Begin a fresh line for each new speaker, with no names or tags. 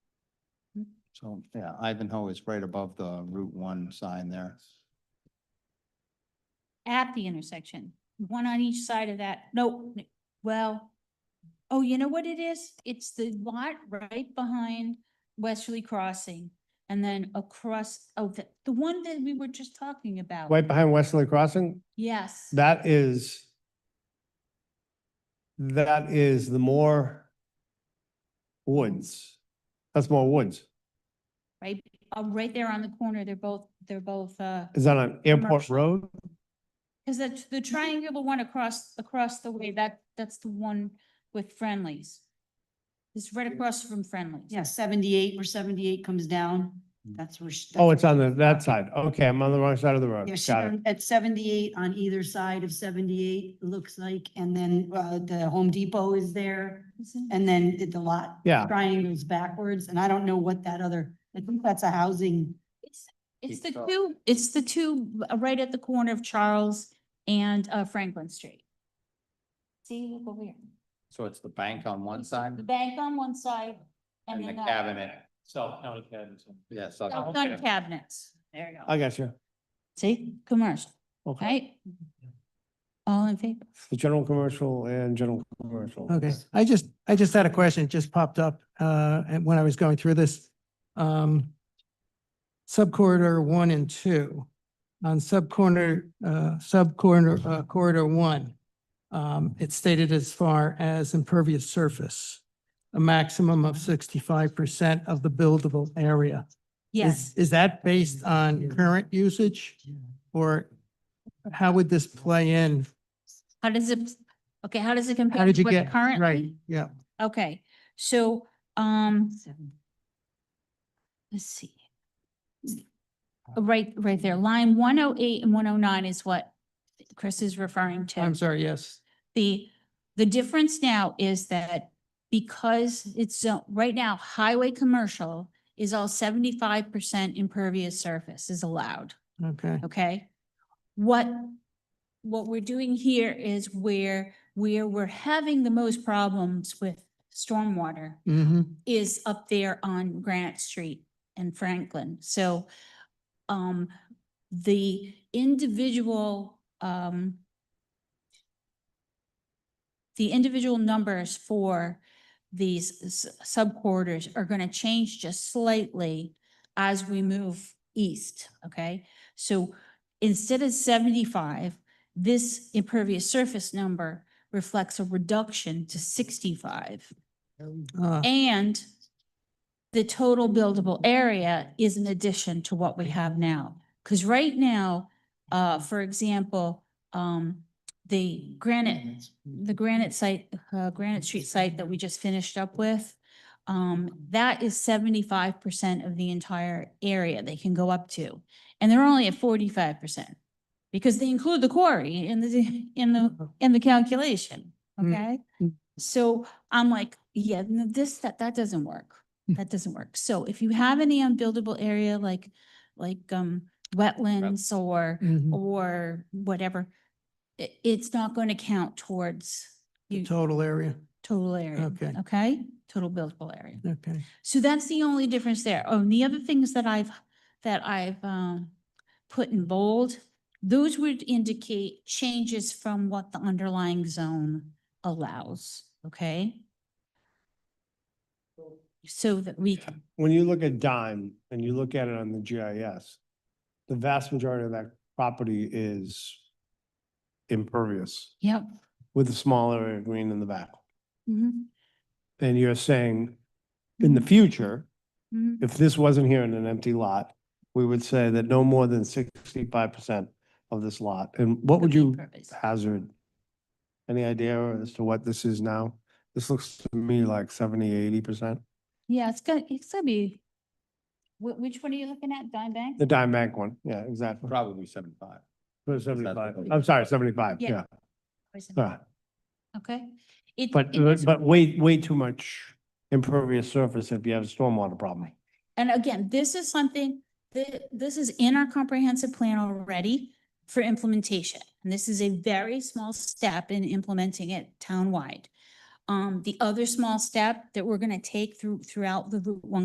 So, yeah, Ivanhoe is right above the Route One sign there.
at the intersection, one on each side of that, no, n- well, oh, you know what it is? It's the lot right behind Westerly Crossing and then across, oh, the, the one that we were just talking about.
Right behind Westerly Crossing,
Yes.
that is that is the more woods. That's more woods.
Right, uh, right there on the corner, they're both, they're both, uh,
Is that on Airport
Commercial.
Road?
cause the, the triangular one across, across the way, that, that's the one with Friendlies. It's right across from Friendlies.
Yeah, seventy-eight, where seventy-eight comes down,
Mm.
that's where. she-
Oh,
that's
it's on the,
where-
that side. Okay, I'm on the wrong side of the road.
Yeah, she's
Got it.
on- at seventy-eight, on either side of seventy-eight, it looks like, and then, uh, the Home Depot is there.
Isn't-
And then it- the lot.
Yeah.
Triangles backwards, and I don't know what that other, I think that's a housing,
It's it's the
Keep up.
two, it's the two uh, right at the corner of Charles and uh, Franklin Street. See, look over here.
So it's the bank on one
You see
side
The bank on one side and
and the
then uh, the.
cabinet. So,
County cabins.
yeah, so
I've done cabinets. There you
I
go.
got you.
See, commercial,
Okay.
right? All in favor?
The general commercial and general commercial.
Okay, I just, I just had a question, it just popped up, uh, and when I was going through this. Um, subcorridor one and two, on subcorridor, uh, subcorridor, uh, corridor one. Um, it's stated as far as impervious surface, a maximum of sixty-five percent of the buildable area. Is-
Yes,
Is that based on current usage? Or how would this play in?
how does it, okay, how does it compare?
How did
to
you
what
get?
Currently?
Right, yeah.
Okay, so, um,
Seven.
let's see. Right, right there, line one oh eight and one oh nine is what Chris is referring to.
I'm sorry, yes.
The, the difference now is that because it's, zo- right now, highway commercial is all seventy-five percent impervious surface is allowed,
Okay.
okay? What, what we're doing here is where, where we're having the most problems with stormwater
Mm-hmm.
is up there on Grant Street and Franklin. So um, the individual um, the individual numbers for these sub corridors are going to change just slightly as we move east, okay? So instead of seventy-five, this impervious surface number reflects a reduction to sixty-five.
Uh,
And the total buildable area is an addition to what we have now. Because right now, uh, for example, um, the granite, the granite site, uh, Granite Street site that we just finished up with, um, that is seventy-five percent of the entire area they can go up to. And they're only at forty-five percent because they include the quarry in the, in the, in the calculation,
Mm.
okay?
Mm.
So I'm like, yeah, no, this, that, that doesn't work. That doesn't work. So if you have any unbuildable area like, like, um, wetlands or,
mhm.
or whatever, it, it's not going to count towards
The
you-
total area,
total area.
Okay.
Okay? Total buildable area.
okay.
So that's the only difference there. Oh, and the other things that I've, that I've, um, put in bold, those would indicate changes from what the underlying zone allows, okay? So that we can,
When you look at Dime and you look at it on the GIS, the vast majority of that property is impervious
yep.
with a small area of green in the back.
mhm,
And you're saying in
Mm-hmm.
the future,
mhm.
if this wasn't here in an empty lot, we would say that no more than sixty-five percent of this lot. And what
Could
would
be
you
impervious.
hazard? Any idea as to what this is now? This looks to me like 70, 80 percent.
Yeah, it's gonna, it's gonna be, wh- which one are you looking at, Dime Bank?
The dime bank one, yeah, exactly.
probably seventy-five.
For Seventy-five, I'm sorry, seventy-five,
Yeah.
yeah.
Poison.
All right.
Okay. It-
Ah. But,
it is-
but way, way too much impervious surface if you have a stormwater problem.
And again, this is something that, this is in our comprehensive plan already for implementation. And this is a very small step in implementing it townwide. Um, the other small step that we're gonna take through, throughout the Route One